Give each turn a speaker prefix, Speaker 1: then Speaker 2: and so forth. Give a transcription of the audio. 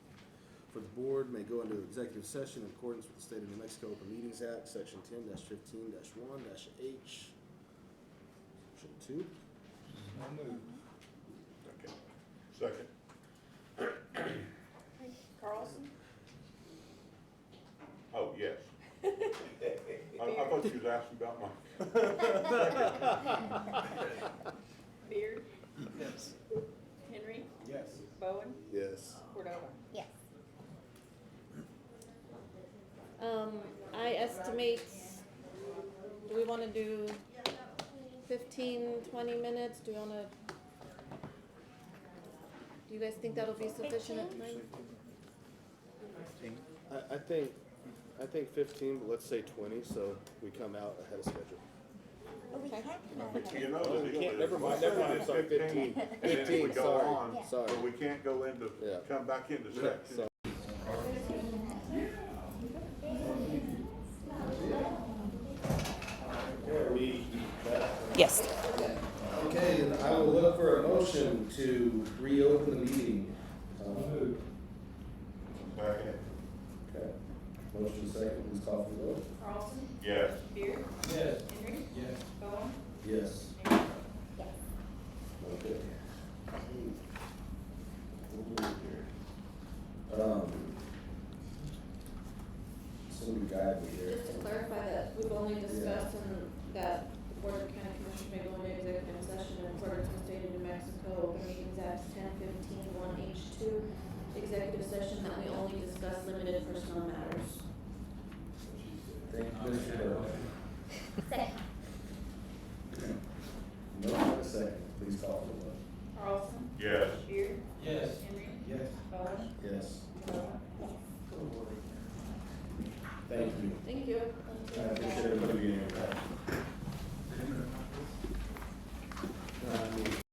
Speaker 1: for the board may go into executive session in accordance with the State of New Mexico Open Meetings Act, section ten fifteen one H, section two.
Speaker 2: So moved.
Speaker 3: Okay. Second.
Speaker 4: Carlson?
Speaker 3: Oh, yes. I, I thought you was asking about my,
Speaker 4: Beard?
Speaker 2: Yes.
Speaker 4: Henry?
Speaker 2: Yes.
Speaker 4: Bowen?
Speaker 1: Yes.
Speaker 4: Cordova?
Speaker 5: Yes. Um, I estimate, do we wanna do 15, 20 minutes? Do you wanna? Do you guys think that'll be sufficient at time?
Speaker 1: I, I think, I think fifteen, but let's say twenty, so we come out ahead of schedule.
Speaker 5: Okay.
Speaker 3: you know.
Speaker 1: Oh, we can't, never mind, never mind, I'm sorry, fifteen,
Speaker 3: And then if we
Speaker 1: fifteen,
Speaker 3: go
Speaker 1: sorry,
Speaker 3: on, But
Speaker 1: sorry.
Speaker 3: we can't go
Speaker 1: Yeah.
Speaker 3: into, come back into section.
Speaker 1: Sorry.
Speaker 5: Yes.
Speaker 1: Okay, and I will look for a motion to reopen the meeting. Uh,
Speaker 3: Second.
Speaker 1: Okay. Motion second, please call for the vote.
Speaker 4: Carlson?
Speaker 3: Yes.
Speaker 4: Beard?
Speaker 2: Yes.
Speaker 4: Henry?
Speaker 2: Yes.
Speaker 4: Bowen?
Speaker 1: Yes.
Speaker 4: Mayor?
Speaker 1: Okay. Um. Somebody guide me here.
Speaker 5: Just to clarify that we've only discussed and that the Board of County Commissioners may go into executive session in accordance with State of New Mexico Open Meetings Act ten fifteen one H two. Executive session that we only discuss limited personal matters.
Speaker 1: Thank you, Mr. Burke. Motion and a second, please call for the vote.
Speaker 4: Carlson?
Speaker 3: Yes.
Speaker 4: Beard?
Speaker 2: Yes.
Speaker 4: Henry?
Speaker 2: Yes.
Speaker 4: Bowen?
Speaker 1: Yes.
Speaker 4: Cordova?
Speaker 1: Thank you.
Speaker 5: Thank you.
Speaker 1: I appreciate everybody being here.